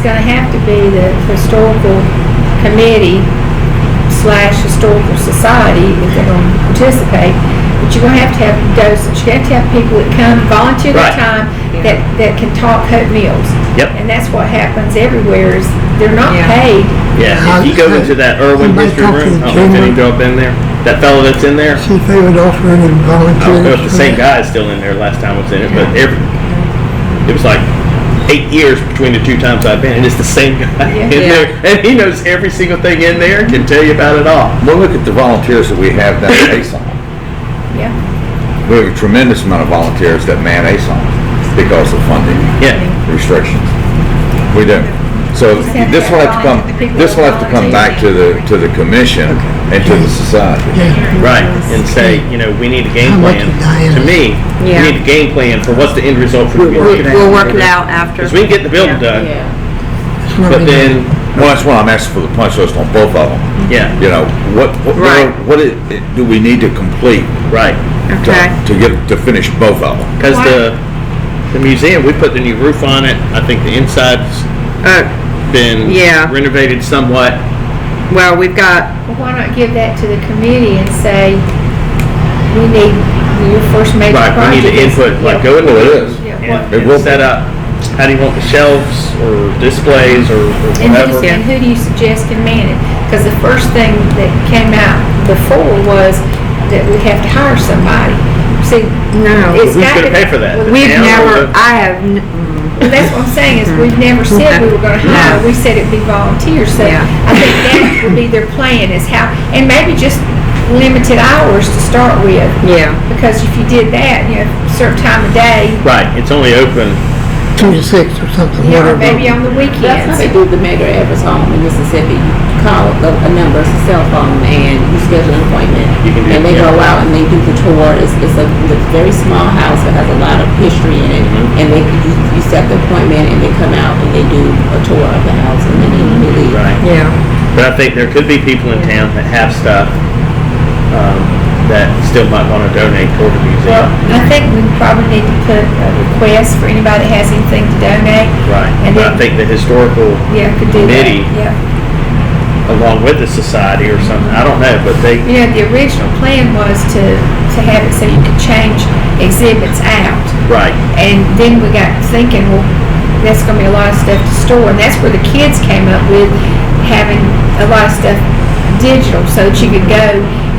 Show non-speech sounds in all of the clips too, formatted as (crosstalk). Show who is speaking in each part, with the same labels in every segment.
Speaker 1: It's gonna have to be the historical committee slash historical society if they're gonna participate. But you're gonna have to have those, you're gonna have to have people that come volunteer their
Speaker 2: Right.
Speaker 1: time that, that can talk hot meals.
Speaker 2: Yep.
Speaker 1: And that's what happens everywhere is they're not
Speaker 3: Yeah.
Speaker 1: paid.
Speaker 2: Yeah, if you go into that Irwin
Speaker 4: Somebody
Speaker 2: history
Speaker 4: talk to
Speaker 2: room,
Speaker 4: the
Speaker 2: I don't know if any
Speaker 4: chamber.
Speaker 2: of y'all been there, that fellow that's in there,
Speaker 4: See if they would offer
Speaker 2: I
Speaker 4: any
Speaker 2: don't know if the
Speaker 4: volunteers.
Speaker 2: Oh, same guy is still in there last time I was in it, but every, it was like eight years between the two times I've been, and it's the same guy (laughs) in
Speaker 3: Yeah.
Speaker 2: there, and he knows every single thing in there, and can tell you about it all.
Speaker 5: Well, look at the volunteers that we have down at ASON.
Speaker 1: Yeah.
Speaker 5: We have a tremendous amount of volunteers that man ASON because of funding
Speaker 2: Yeah,
Speaker 5: restrictions. We do. So this will have to come, this will have to come back to the, to the commission and to the society.
Speaker 4: Yeah,
Speaker 2: right, and say, you know, we need a game
Speaker 4: How much
Speaker 2: plan.
Speaker 4: is Diana?
Speaker 2: To me, we
Speaker 3: Yeah.
Speaker 2: need a game plan for what's the end result for the
Speaker 3: We'll
Speaker 2: community.
Speaker 3: we'll work it out after.
Speaker 2: Because we can get the building done,
Speaker 3: Yeah.
Speaker 4: that's what
Speaker 2: but
Speaker 4: we need.
Speaker 2: then,
Speaker 5: Well, that's why I'm asking for the punch list on both of them.
Speaker 2: yeah,
Speaker 5: You know, what, what,
Speaker 3: Right.
Speaker 5: what it- do we need to complete
Speaker 2: right.
Speaker 5: to,
Speaker 3: Okay.
Speaker 5: to get, to finish both of them?
Speaker 2: Because the, the museum, we put the new roof on it. I think the inside's
Speaker 3: Uh,
Speaker 2: been
Speaker 3: Yeah.
Speaker 2: renovated somewhat.
Speaker 3: well, we've got,
Speaker 1: Well, why not give that to the committee and say, we need, your first major
Speaker 2: Right,
Speaker 1: project.
Speaker 2: we need the
Speaker 1: is-
Speaker 2: input, like
Speaker 1: yeah,
Speaker 2: go into
Speaker 5: Well, it
Speaker 2: it
Speaker 5: is.
Speaker 1: yeah, what-
Speaker 2: and
Speaker 5: It will
Speaker 2: and
Speaker 5: be.
Speaker 2: set up, how do you want the shelves or displays or or
Speaker 1: And who,
Speaker 2: whatever?
Speaker 1: and who do you suggest can man it? Because the first thing that came out before was that we have to hire somebody. See,
Speaker 3: no,
Speaker 1: it's
Speaker 2: Who's
Speaker 1: got
Speaker 2: gonna
Speaker 1: to-
Speaker 2: pay for that?
Speaker 1: Well,
Speaker 3: we've
Speaker 2: Yeah,
Speaker 3: never,
Speaker 2: but-
Speaker 3: I have, n- mm.
Speaker 1: Well, that's what I'm saying, is we've never said we were
Speaker 3: (laughs)
Speaker 1: gonna hire,
Speaker 3: No.
Speaker 1: we said it'd be volunteers, so
Speaker 3: Yeah.
Speaker 1: I think that would be their plan is how, and maybe just limited hours to start with.
Speaker 3: yeah,
Speaker 1: Because if you did that, you know, certain time of day,
Speaker 2: Right, it's only open,
Speaker 4: Two to six or something,
Speaker 1: you know,
Speaker 4: whatever.
Speaker 1: maybe on the
Speaker 6: That's
Speaker 1: weekends.
Speaker 6: how they do the Medgar Evers Home in Mississippi. You call the, a number, it's a cell phone, and you schedule an appointment.
Speaker 2: You can do-
Speaker 6: And they
Speaker 2: yeah.
Speaker 6: go out and they do the tour. It's, it's a, it's a very small house that has a lot of history in it.
Speaker 2: Mm-hmm.
Speaker 6: And they, you, you set the appointment and they come out and they do a tour of the house and then they
Speaker 2: Mm-hmm.
Speaker 6: leave.
Speaker 2: right.
Speaker 3: yeah,
Speaker 2: But I think there could be people in town that have stuff um, that still might want to donate toward the
Speaker 1: Well,
Speaker 2: museum.
Speaker 1: I think we probably need to put a request for anybody that has anything to donate.
Speaker 2: Right,
Speaker 1: And
Speaker 2: but I
Speaker 1: then-
Speaker 2: think the historical,
Speaker 1: Yeah, could do that.
Speaker 2: Committee.
Speaker 1: Yeah.
Speaker 2: along with the society or something, I don't know, but they,
Speaker 1: You know, the original plan was to, to have it so you could change exhibits out.
Speaker 2: right,
Speaker 1: And then we got thinking, well, that's gonna be a lot of stuff to store, and that's where the kids came up with having a lot of stuff digital, so that you could go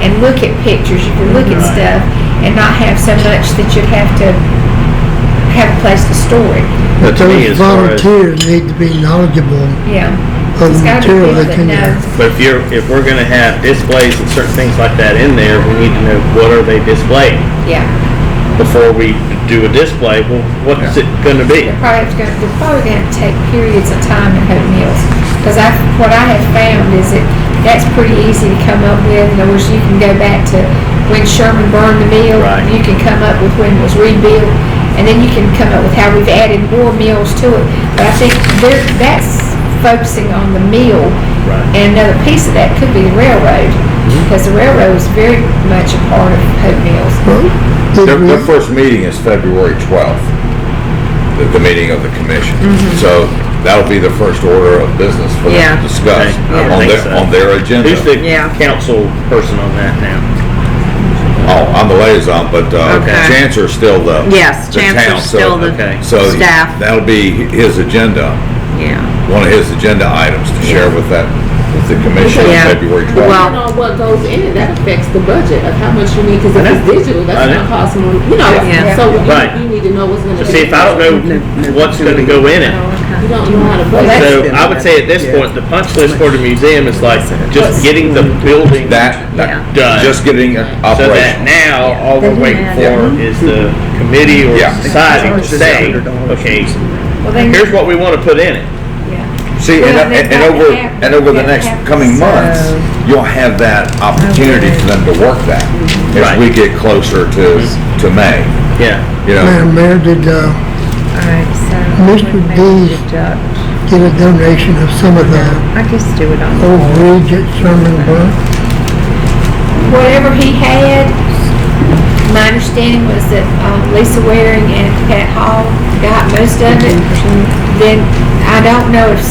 Speaker 1: and look at pictures, you could look at
Speaker 2: Right.
Speaker 1: stuff, and not have so much that you'd have to have a place to store it,
Speaker 2: but
Speaker 4: But
Speaker 2: to me,
Speaker 4: those
Speaker 2: as far as.
Speaker 4: volunteers need to be knowledgeable
Speaker 1: yeah.
Speaker 4: of
Speaker 1: It's
Speaker 4: the
Speaker 1: gotta be
Speaker 4: material
Speaker 1: people
Speaker 4: that's in
Speaker 1: know.
Speaker 4: there.
Speaker 2: But if you're, if we're gonna have displays and certain things like that in there, we need to know what are they displaying
Speaker 1: Yeah,
Speaker 2: before we do a display. Well, what's it gonna be?
Speaker 1: they're probably have to go- they're probably gonna have to take periods of time and have meals. Cause I, what I have found is that that's pretty easy to come up with. In other words, you can go back to when Sherman burned the mill.
Speaker 2: Right.
Speaker 1: You can come up with when it was rebuilt. And then you can come up with how we've added more meals to it. But I think there, that's focusing on the meal.
Speaker 2: Right. Mm-hmm.
Speaker 1: And another piece of that could be the railroad. Because the railroad is very much a part of Hope Mills.
Speaker 4: Well, did
Speaker 5: Their,
Speaker 4: we-
Speaker 5: their first meeting is February 12th, the, the meeting of the commission. So that'll be the first order of business for
Speaker 3: Mm-hmm. Yeah.
Speaker 5: them to discuss
Speaker 2: Okay, I
Speaker 5: on
Speaker 2: think
Speaker 5: their,
Speaker 2: so.
Speaker 5: on their agenda.
Speaker 2: Who's the
Speaker 3: Yeah.
Speaker 2: council person on that now?
Speaker 5: Oh, I'm the liaison, but, uh,
Speaker 3: Okay.
Speaker 5: Chancellor's still the.
Speaker 3: yes,
Speaker 5: the town,
Speaker 3: Chancellor's
Speaker 5: so-
Speaker 3: still the
Speaker 2: okay.
Speaker 5: So
Speaker 3: staff.
Speaker 5: that'll be his agenda,
Speaker 3: yeah,
Speaker 5: one of his agenda items to share with that, with the commission on
Speaker 3: Yeah.
Speaker 5: February
Speaker 3: Well-
Speaker 5: 12th.
Speaker 6: Depending on what goes in it, that affects the budget of how much you need, because if
Speaker 2: I know.
Speaker 6: it's digital,
Speaker 2: I
Speaker 6: that's
Speaker 2: know.
Speaker 6: gonna cost more, you know,
Speaker 3: Yeah.
Speaker 6: so you,
Speaker 2: Right.
Speaker 6: you need to know what's gonna
Speaker 2: So
Speaker 6: be.
Speaker 2: see, if I don't know what's gonna go in it,
Speaker 6: You don't know how to budget.
Speaker 2: so I would say at this point, the punch list for the museum is like just getting the building
Speaker 5: That, that,
Speaker 2: done.
Speaker 5: just getting it
Speaker 2: So that
Speaker 5: operational.
Speaker 2: now, all we're waiting for is the committee or
Speaker 5: Yeah.
Speaker 2: society to say, okay,
Speaker 1: Well, then-
Speaker 2: here's what we wanna put in it.
Speaker 1: Yeah.
Speaker 5: See, and,
Speaker 1: Well, they
Speaker 5: and and
Speaker 1: probably
Speaker 5: over,
Speaker 1: have-
Speaker 5: and over the
Speaker 1: have-
Speaker 5: next
Speaker 1: have
Speaker 5: coming months, you'll have that opportunity for them to work that
Speaker 2: Right.
Speaker 5: as we get closer to, to May,
Speaker 2: Yeah,
Speaker 5: you know.
Speaker 4: Madam Mayor, did, uh,
Speaker 7: All right, so.
Speaker 4: Mr.
Speaker 7: we may
Speaker 4: Dees-
Speaker 7: deduct-
Speaker 4: get a donation of some of the
Speaker 7: I guess do it on.
Speaker 4: old bridge at Sherman Burke?
Speaker 1: whatever he had, my understanding was that um, Lisa Waring and Pat Hall got most of it. Then I don't know if